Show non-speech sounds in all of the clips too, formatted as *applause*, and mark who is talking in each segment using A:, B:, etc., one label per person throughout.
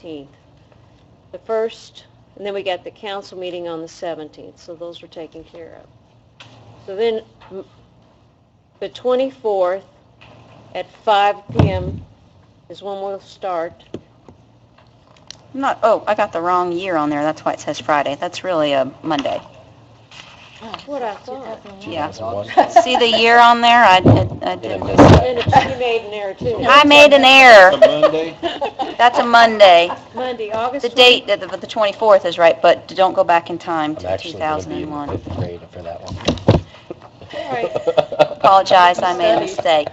A: 18th. The first, and then we got the council meeting on the 17th, so those were taken care of. So then, m- the 24th at 5 PM is when we'll start.
B: I'm not, oh, I got the wrong year on there, that's why it says Friday, that's really a Monday.
A: What I thought.
B: Yeah. *laughs*
C: That's
B: See the year on there, I did, I
C: Yeah,
B: did,
C: that's-
A: And it's- you made an error too.
B: I
A: *laughs*
B: made an error,
C: a Monday?
B: that's a Monday.
A: Monday, August.
B: The date, the, the 24th is right, but don't go back in time
C: I'm
B: to
C: actually going to be in the
B: 2001.
C: fifth grade for that one.
A: All right,
B: Apologize,
A: *laughs*
B: I made a mistake,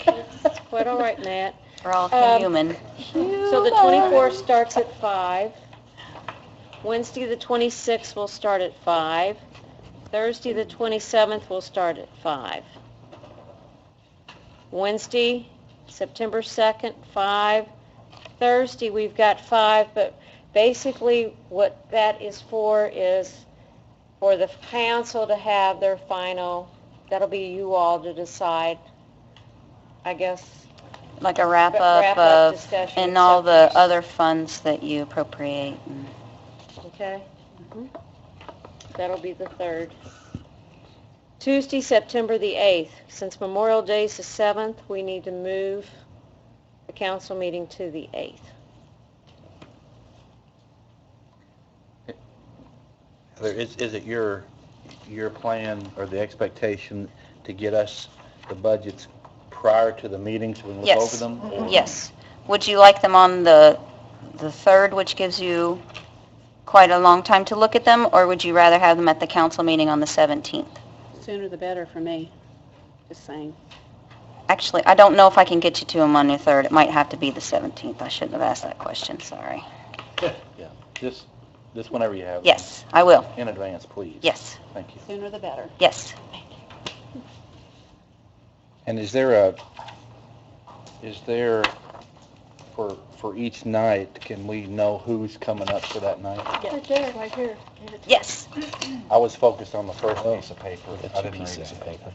A: quite all right, Matt.
B: we're all
A: Um,
B: human.
A: So the 24th starts at 5. Wednesday, the 26th will start at 5. Thursday, the 27th will start at 5. Wednesday, September 2nd, 5. Thursday, we've got 5, but basically what that is for is for the council to have their final, that'll be you all to decide, I guess,
B: Like a wrap-up
A: Wrap up
B: of,
A: discussion.
B: and all the other funds that you appropriate. and-
A: Okay.
D: Mm-hmm.
A: That'll be the third. Tuesday, September the 8th. Since Memorial Day is the 7th, we need to move the council meeting to the 8th.
E: Heather, Is, is it your, your plan or the expectation to get us the budgets prior to the meetings when we look
B: Yes. Mm-hmm.
E: over them?
F: Mm-hmm.
E: or-
B: Yes. Would you like them on the, the 3rd, which gives you quite a long time to look at them, or would you rather have them at the council meeting on the 17th?
D: Sooner the better for me, just saying.
B: Actually, I don't know if I can get you to them on the 3rd. It might have to be the 17th. I shouldn't have asked that question, sorry.
E: Yeah, just, just whenever you have. them.
B: Yes, I will.
E: In advance, please.
B: Yes,
E: Thank you.
D: Sooner the better.
B: yes.
E: And is there a, is there, for, for each night, can we know who's coming up for that night?
B: Yes.
E: I was focused on the first piece of paper.
C: The
E: I didn't
C: two
E: read it.
C: pieces of paper.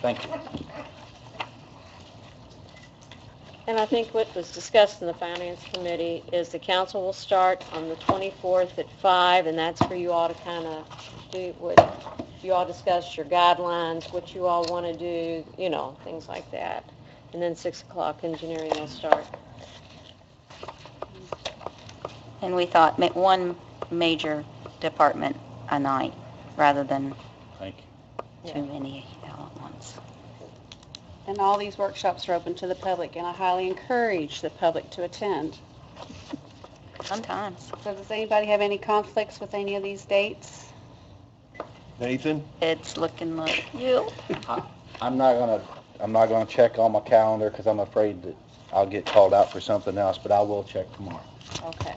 E: Thank you.
A: And I think what was discussed in the Finance Committee is the council will start on the 24th at 5, and that's where you all to kind of do what, you all discuss your guidelines, what you all want to do, you know, things like that. And then 6 o'clock, engineering will start.
B: And we thought ma- one major department a night, rather than
E: Thank you.
B: too many all at once.
D: And all these workshops are open to the public, and I highly encourage the public to attend.
B: Sometimes.
D: So does anybody have any conflicts with any of these dates?
E: Nathan?
B: It's looking like you.
E: I'm not gonna, I'm not gonna check on my calendar because I'm afraid that I'll get called out for something else, but I will check tomorrow.
D: Okay.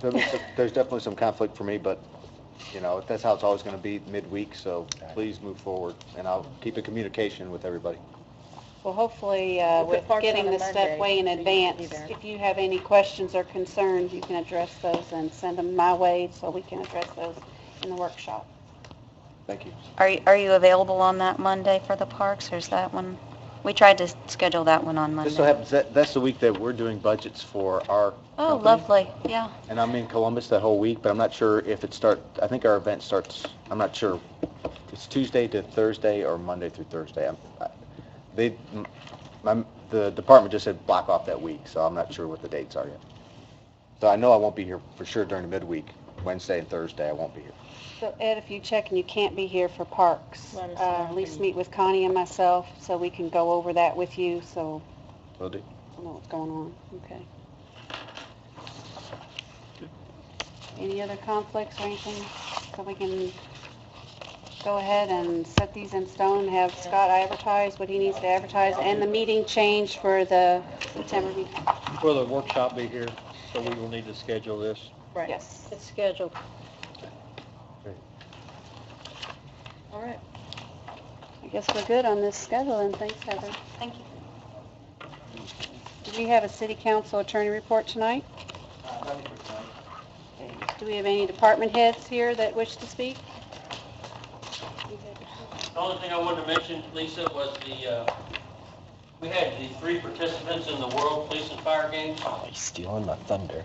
F: There's definitely some conflict for me, but, you know, that's how it's always going to be midweek, so please move forward, and I'll keep in communication with everybody.
D: Well, hopefully, uh, with getting this stuff way in advance, if you have any questions or concerns, you can address those and send them my way so we can address those in the workshop.
F: Thank you.
B: Are you, are you available on that Monday for the parks, or is that one? We tried to schedule that one on
F: This so
B: Monday.
F: happens, that, that's the week that we're doing budgets for our
B: Oh,
F: company,
B: lovely, yeah.
F: And I'm in Columbus that whole week, but I'm not sure if it start, I think our event starts, I'm not sure. It's Tuesday to Thursday or Monday through Thursday. I'm- I- They, m- my, the department just said block off that week, so I'm not sure what the dates are yet. So I know I won't be here for sure during the midweek, Wednesday and Thursday, I won't be here.
D: So Ed, if you check and you can't be here for parks,
A: Let us
D: uh,
A: know.
D: at least meet with Connie and myself so we can go over that with you, so
F: Will do.
D: I know what's going on, okay. Any other conflicts or anything, so we can go ahead and set these in stone, have Scott advertise what he needs to advertise, and the meeting change for the September meeting?
G: Will the workshop be here? So we will need to schedule this.
D: Yes.
A: It's scheduled. All right.
D: I guess we're good on this schedule, and thanks, Heather.
B: Thank you.
D: Do we have a city council attorney report tonight? Do we have any department heads here that wish to speak?
H: The only thing I wanted to mention, Lisa, was the uh, We had the three participants in the World Police and Fire Games.
C: He's Oh, stealing my thunder.